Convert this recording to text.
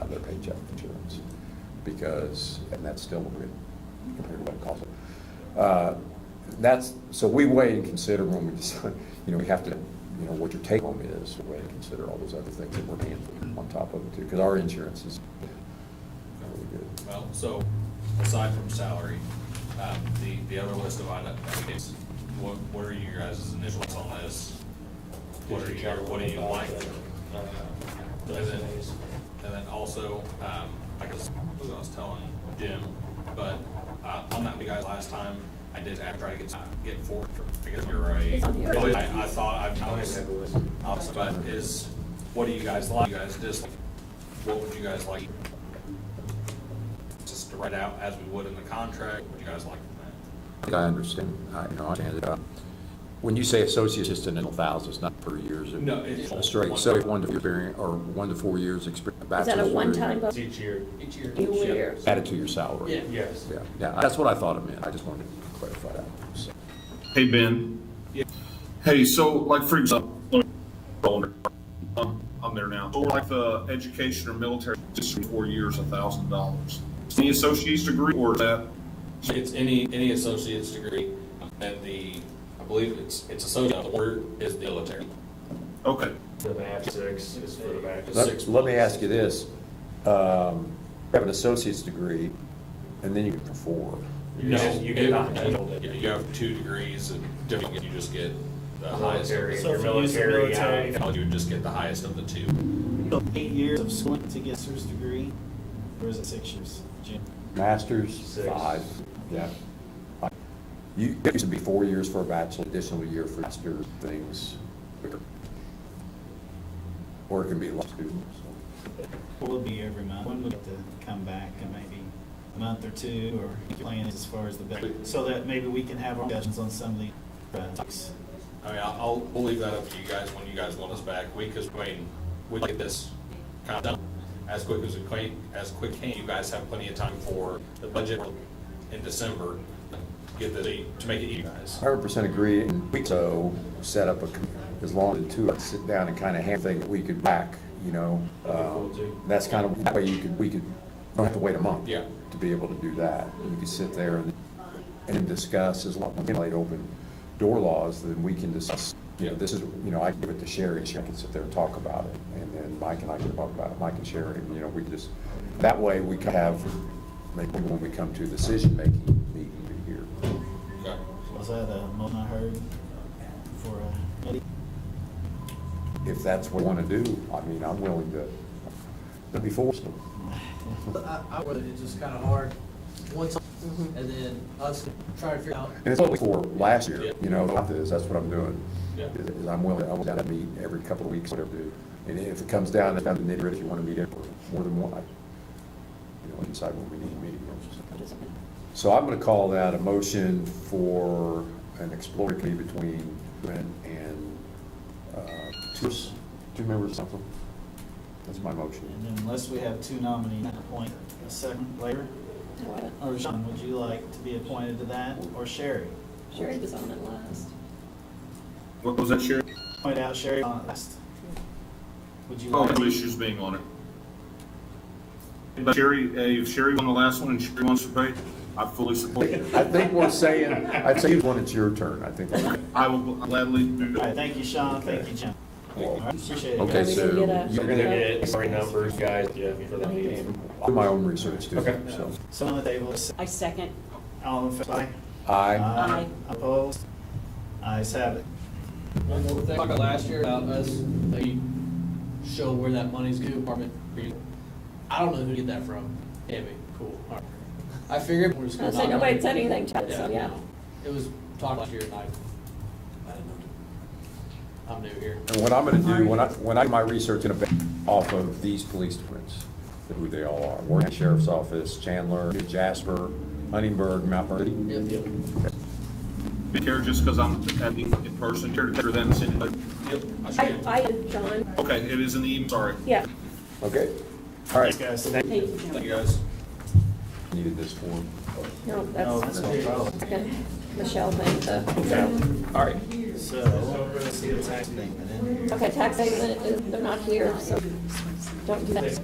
death insurance, because, and that's still good compared to what it costs. Uh, That's, so we weigh and consider when we decide, you know, we have to, you know, what your take home is, we weigh and consider all those other things that we're paying for on top of it too, because our insurance is really good. Well, so aside from salary, um, the, the other list of items, what, what are you guys' initials on this? What are you, what do you like? And then, and then also, um, I guess, I was telling Jim, but, uh, on that, you guys last time, I did act- try to get, uh, get four, because you're It's on the a, other- I, I thought, I've noticed, uh, but is, what do you guys like, you guys dislike? What would you guys like? Just to write out as we would in the contract, would you guys like? I think I understand, I, you know, I understand it. Uh, When you say associate, it's just in the thousands, not per year, is it? No, it's- That's right, so if one to experience, or one to four years experience. Is that a one-time It's bonus? Each year. Each year. Each year. Added to your salary. Yeah. Yes. Yeah, yeah, that's what I thought it meant, I just wanted to clarify that. So, Hey, Ben. Yeah. Hey, so like for example, let me- I'm, I'm there now. So like the education or military, just for four years, a thousand dollars. Any associate's degree or is that? It's any, any associate's degree, and the, I believe it's, it's associate, the word is the military. Okay. The match six is for the match. Let let me ask you this, um, you have an associate's degree, and then you get four. You just- you get not handled You it. you have two degrees and different, you just get the highest. Military, Uh, So your if you use the military, military- yeah. You would just get the highest of the two. So Eight years of schooling to get your degree, or is it six years? Jim? Masters, Six. five, yeah. You, it used to be four years for a bachelor, additional year for master things. Or it can be law students. What would be every month? When would it to come back, and maybe a month or two, or what your plan is as far as the, best- so that maybe we can have our discussions on some of these uh, topics. I mean, I'll, I'll- we'll leave that up to you guys when you guys want us back. We, cause, I mean, we get this kind of done as quick as we can, as quick can. You guys have plenty of time for the budget in December, get the, to make it you guys. Hundred percent agree, and we so set up a, com- as long as the two of us sit down and kind of hand thing that we could back, you know. um, That's kind of, that way you could, we could, don't have to wait a month. Yeah. To be able to do that. You could sit there and, and discuss, as long as we lay open door laws, then we can discuss, you know, this is, you know, I give it to Sherry, and she can sit there and talk about it. And then Mike and I can talk about it, Mike and Sherry, and, you know, we just, that way we can have, maybe when we come to a decision-making meeting here. Okay. Was that a motion I heard for a committee? if that's what you want to do, I mean, I'm willing to, to be forced to. I, I would, it's just kind of hard, once, Mm-hmm. and then us trying to figure out, And it's what we for last year, you know, about this, that's what I'm doing. Yeah. Is is I'm willing, I want to meet every couple of weeks, whatever, do. And if it comes down, it's down to nitty gritty, if you want to meet it for more than one, I, you know, inside when we need to meet. you know, just- So I'm going to call that a motion for an exploratory committee between Glenn and, uh, two, two members or something. That's my And motion. then unless we have two nominees, appoint a second later, Oh, or Sean, would you like to be appointed to that, or Sherry? Sherry was on it last. What was that, Sherry? Point out Sherry on last. Would you Oh, like? no issues being on it. But Sherry, hey, if Sherry won the last one and Sherry wants to pay, I fully support it. I think we're saying, I'd say when it's your turn, I think. I will gladly do All right, that. thank you, Sean, thank you, Jim. All right, Appreciate it. Okay, guys. We didn't so get a- you- We're gonna get sorry numbers, guys, yeah, for that meeting. I'll do my own research too, Okay. so. So on the table, is- I second. all in favor? Uh, I, Opposed? Ayes have it. one more thing, talked about last year about us, they show where that money's going, apartment, I don't know who to get that from, Tammy, cool, all right. I figured we're just I gonna. said, knock on nobody it. said anything to it, so, yeah. It was talked last year, and I, I didn't know. I'm new here. and what I'm gonna do, when I, when I do my research in a, off of these police departments, who they all are, Warren Sheriff's Office, Chandler, New Jasper, Huntingburg, Mount Vernon. Yep, yep. Care just because I'm at the- in person, care to care then send it. Yep. I I, should- I and John, Okay, it is in the evening, sorry. yeah, Okay, all Thanks, right. guys. Thank thank you. you, Thank John. you, guys. Needed this form. No, No, that's that's, no problem. okay. Michelle made the, All right. So, let's see the tax statement in. okay, tax statement, is- they're not here, so don't do that.